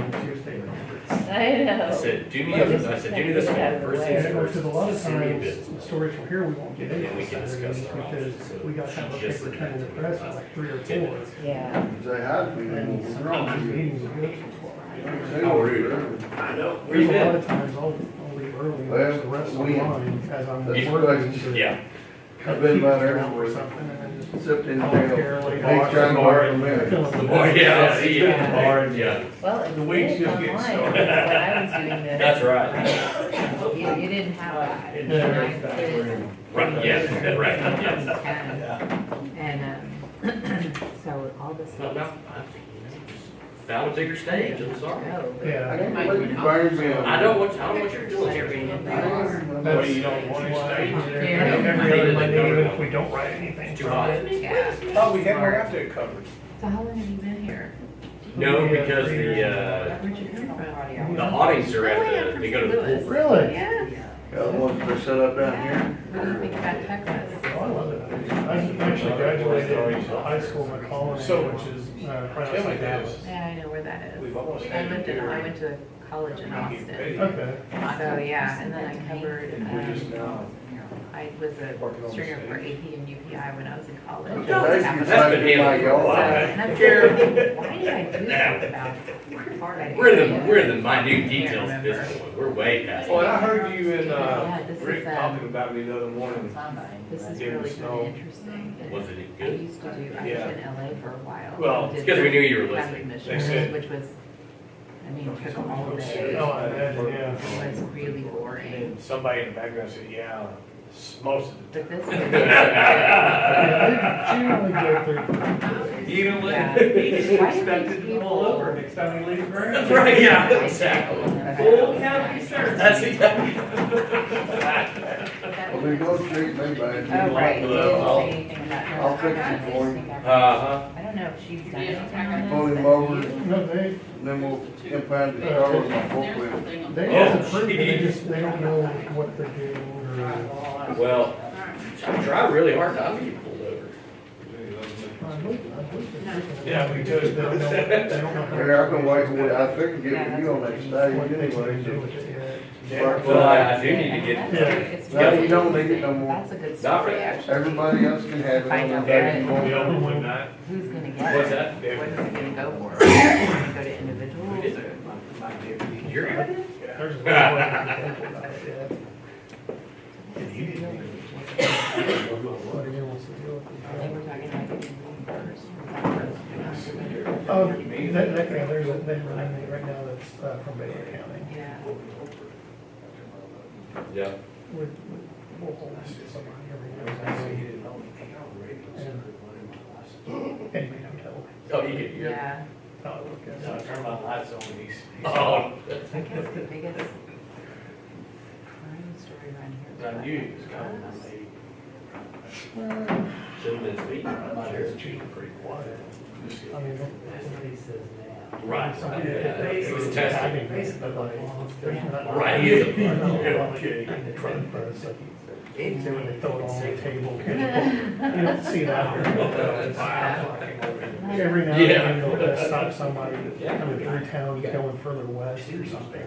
I know. I said, do me, a- I said, do me this one, first things Yeah, first, Because a lot of send me a times, business. storage from here, we won't get And then we any can discuss Saturdays our options. because So we got she kind of a just paper did that trail to of me press for last like three or 10 four. minutes. Yeah, They had me, And and some wrong. meetings are good. They How were rude. good. I know. Where There's you a lot been? of times I'll, I'll leave early, and Well, watch the rest of we- mine as I'm that's working. right. to Yeah, cut I've been by keys there out or for- something and then just Except in jail. voluntarily They watch trying to it. work for me. Fill in the the bar, blanks. Oh, yeah, I see you at the bar, and yeah. well, it's The weeks good just online, get because started. when I was doing this. That's right. You, you didn't have that. Yeah, And I it's could- Right, yeah, right, yeah. And, and, um, so all this. No, no, stuff. I- Found a bigger stage, I'm sorry. Yeah. I can put the burn bill. I don't want, I don't want your doing. That's- That's- you don't want to stay? That's Every there. Yeah. other Monday, even if we don't write anything. Too hot. Oh, we had, we got that covered. So how long have you been here? No, because the, uh, Where'd you come from? the awnings are at the, they go to the pool. Really? Yeah. Got one for set up down here. What do you think about Texas? I love it. I actually graduated from high school in Colony, which is, uh, right Tell me outside Dallas. this, Yeah, I know where that is. we've almost I had lived in, I it went to college in Austin. here. Okay. So, Oh, yeah, and then I covered, And we just um, now, I was a stringer for AP and UPI when I was in college. That's been handled for a So, while. and I'm thinking, why did I do something about it? We're in the, we're in the minute details of this one, we're way past. well, and I heard you and, Yeah, uh, this is, Rick um, talking about me the other morning. This is Give it really a snow. good, interesting. it. And Wasn't it I good? used to do, I Yeah. was in LA for a while. I Well, It's did because we knew you were traffic listening. commissioners, said- Which was, I mean, took all day. Oh, I imagine, It yeah. was really And boring. then somebody in the background said, yeah, it's most of the But this Yeah, I generally go through- was. Even Yeah. when he Why do these expected them people- all over next time he leaves Grand. That's right, yeah, exactly. Full county sheriff. That's exactly. Well, they go treat Oh, me bad. right, you didn't uh, I'll- say anything about her. I'll fix it for you. Uh-huh. I don't know if she's done anything on this. Pull him but- over, No, they, then we'll impound the car with my forklift. they Oh, just approve, it, they geez. just, they don't know what they're doing or. Well, I try really hard not to get pulled over. time. I believe- I believe they're picking it up. Yeah, we do. They don't know- they don't know. Here, I can wait, till- I think get with you on that stage anyway, so. Yeah. Well, I, I do need to Yeah, get, that's- Yeah. Now you don't need it no more. That's a good Not for- story, actually. Everybody else can have it. Find on out their what- phone. We opened one night. Who's gonna get it? what's that? What is it gonna go for? Is it gonna Go to individuals or? You're good? There's a lot of people about it, yeah. Nobody else is doing They it. were talking about getting Um, first. that, that, yeah, there's a, they run it right now that's uh, from Baylor County. Yeah. Yeah. We- we- We'll hold this to somebody every year. And we don't tell. Oh, you get, you Yeah, how it works. So I turned my lights on, he's. he's- Oh, I guess the biggest crime story around here. is Uh, I about knew he was coming, I drugs. said, shouldn't have been speeding. Sure. pretty quiet. I mean, don't- Right, right, yeah, it was I testing. mean, basically, like, there's not- Right, he is a- There's not a lot of in front of us, like, so when they throw it on the table, you don't see that. Every now and then, you'll uh, stop somebody coming through town, going further west or something.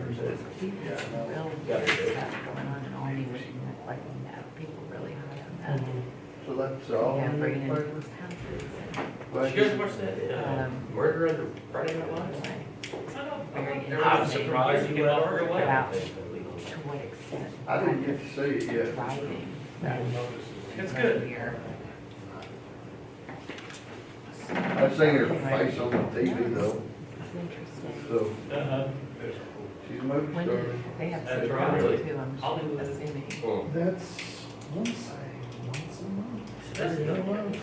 People have some real weird stuff going on in Albany, which you might like, you know, people really high on that. And So that's all Yeah, in the bringing in paper. people's houses Did you guys watch that, uh, Um, Murder on the Friday Night and, Lights? like, very I interesting was surprised you could offer it away. About to what extent. I didn't get to see it yet. Driving. It's good. Here. I seen her face on the TV though, It's interesting. so Uh-huh. she's a movie When star. did, they have That's some right. problems too, I'm Hollywood. assuming. Well, That's, one side, once a month. Every other month.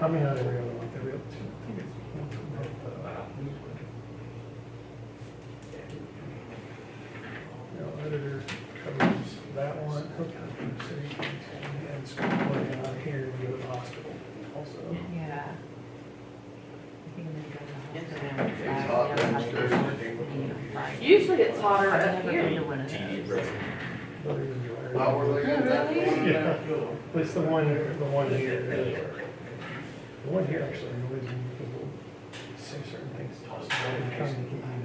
I mean, not every other month, every other two. I think it's once a month, uh, you know, editor covers that one, Hookup, City, and school, and out here, and go to the hospital also. Yeah. I think I'm gonna go to the It's hospital. hot Yeah, I'm downstairs. gonna go. Usually it's hotter I've up never been here. to one of TV, those. bro. But it was dry. Why were they at that one? Yeah, it's the one, the one here. The one here actually annoys me because we'll say certain things. to us, and we're trying to get you